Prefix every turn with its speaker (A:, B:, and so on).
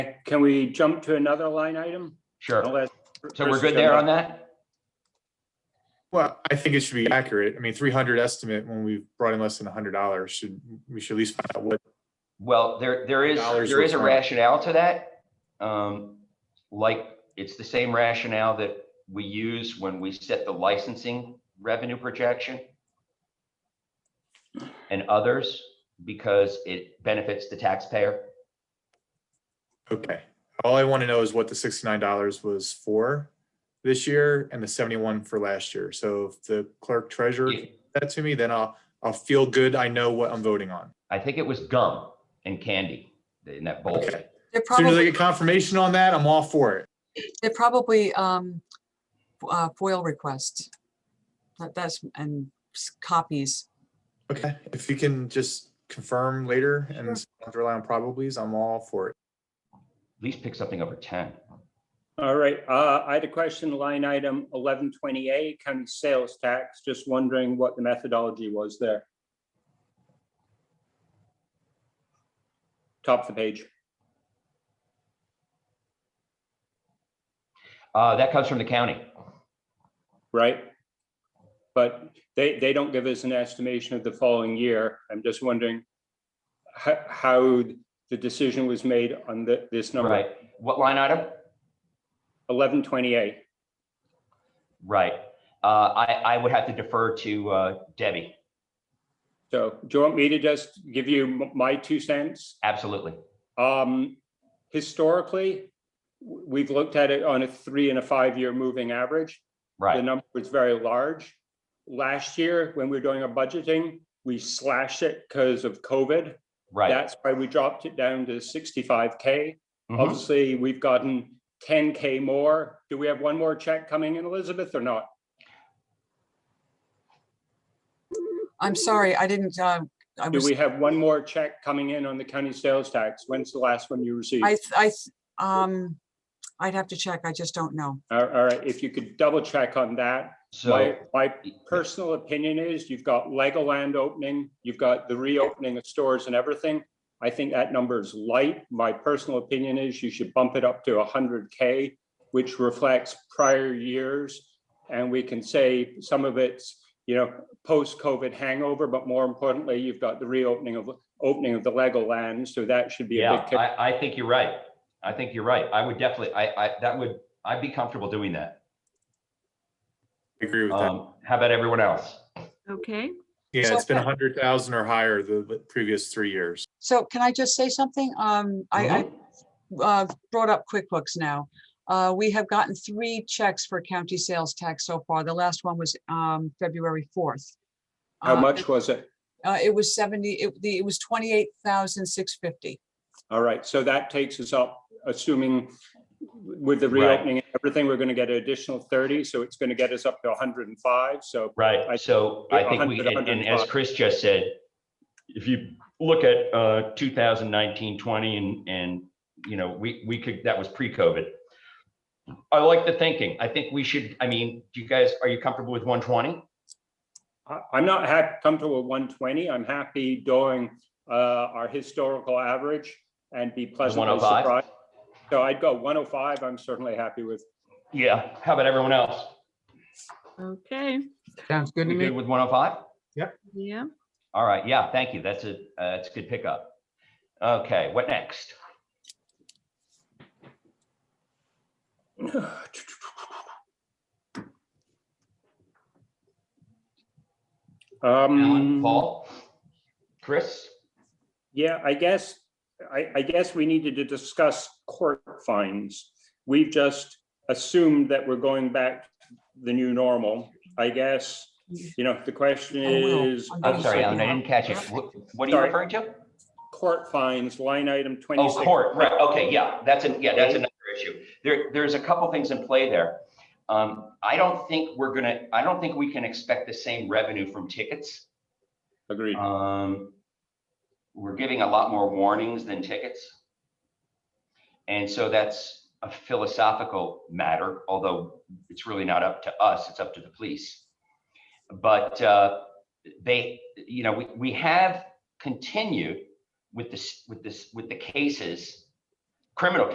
A: Can we jump to another line item? I'll
B: Sure.
A: ask
B: So
A: Chris
B: we're
A: to
B: good
A: come
B: there
A: back.
B: on that?
C: Well, I think it should be accurate. I mean, three hundred estimate when we brought in less than hundred dollars, should, we should at least find out what,
B: Well, there, there is,
C: Dollars
B: there
C: were
B: is a
C: fine.
B: rationale to that. Um, like, it's the same rationale that we use when we set the licensing revenue projection and others, because it benefits the taxpayer.
C: okay. All I want to know is what the sixty-nine dollars was for this year and the seventy-one for last year. So if the clerk treasurer
B: If-
C: gave that to me, then I'll, I'll feel good. I know what I'm voting on.
B: I think it was gum and candy in that bowl.
C: Okay.
D: They're
C: As Soon as I
D: probably,
C: get confirmation on that, I'm all for it.
D: they're probably um, f- uh, FOIL requests. That- That's, and s- copies.
C: Okay, if you can just confirm later and
D: Sure.
C: so I don't have to rely on probablys, I'm all for it.
B: At least pick something over ten.
A: All right, uh, I had a question, line item eleven twenty-eight, county sales tax, just wondering what the methodology was there. Top of the page.
B: Uh, that comes from the county.
A: right? But they, they don't give us an estimation of the following year. I'm just wondering how, how the decision was made on the, this number,
B: Right. What line item?
A: eleven twenty-eight.
B: Right. Uh, I, I would have to defer to, uh, Debbie.
A: So do you want me to just give you m- my two cents?
B: Absolutely.
A: Um, historically, w- we've looked at it on a three and a five-year moving average. The
B: Right.
A: number was very large. Last year, when we were doing our budgeting, we slashed it because of COVID.
B: Right.
A: That's why we dropped it down to sixty-five K.
B: Mhm.
A: Obviously, we've gotten ten K more. Do we have one more check coming in, Elizabeth, or not?
D: I'm sorry, I didn't, uh, I
A: Do
D: was,
A: we have one more check coming in on the county sales tax? When's the last one you received?
D: I, th- I, th- um, I'd have to check. I just don't know.
A: All all right, if you could double check on that. My,
B: So,
A: my personal opinion is you've got Legoland opening, you've got the reopening of stores and everything. I think that number is light. My personal opinion is you should bump it up to hundred K, which reflects prior years. And we can say some of it's, you know, post-COVID hangover, but more importantly, you've got the reopening of, opening of the Legoland, so that should be a
B: yeah,
A: big. kick.
B: I, I think you're right. I think you're right. I would definitely, I, I, that would, I'd be comfortable doing that.
C: I agree with that.
B: Um, how about everyone else?
E: Okay,
C: Yeah, it's been
D: so-
C: a hundred thousand or higher the the previous three years.
D: So can I just say something? Um, I, I
A: Mm-hmm.
D: uh, brought up QuickBooks now. Uh, we have gotten three checks for county sales tax so far. The last one was, um, February 4th.
A: How
D: Uh,
A: much was it?
D: Uh, it was 70, it, the, it was 28,650.
A: All right, so that takes us up, assuming with the
B: Right.
A: reopening, and everything, we're gonna get an additional thirty, so it's gonna get us up to hundred and five, so. I-
B: Right, so I think we,
A: 100,
B: and and as
A: 105.
B: Chris just said, if you look at uh 2019, 20 and, and, you know, we, we could, that was pre-COVID. I like the thinking. I think we should, I mean, do you guys, are you comfortable with 120?
A: I, I'm not hap, comfortable with one twenty, I'm happy doing, uh, our historical average and be pleasantly
B: 105?
A: surprised. So I'd go one oh five, I'm certainly happy with.
B: Yeah, how about everyone else?
E: okay,
F: Sounds good to
B: We good
F: me.
B: with 105?
E: yeah.
B: All right, yeah, thank you. That's a, uh, that's a good pickup. Okay, what next? Alan,
A: Um,
B: Paul? Chris?
A: Yeah, I guess, I, I guess we needed to discuss court fines. We've just assumed that we're going back to the new normal. I guess, you know, the question
D: I will.
A: is.
D: I'm
B: I'm sorry, um, Alan, I
D: Yeah.
B: didn't catch it. What- What are you
A: Sorry.
B: referring to?
A: Court fines, line item
B: Oh,
A: twenty-six.
B: court, right, okay, yeah, that's an, yeah, that's another issue. There, there's a couple things in play there. Um, I don't think we're gonna, I don't think we can expect the same revenue from tickets.
A: Agreed.
B: Um, we're giving a lot more warnings than tickets. And so that's a philosophical matter, although it's really not up to us, it's up to the police. But, uh, they, you know, we, we have continued with this, with this, with the cases, criminal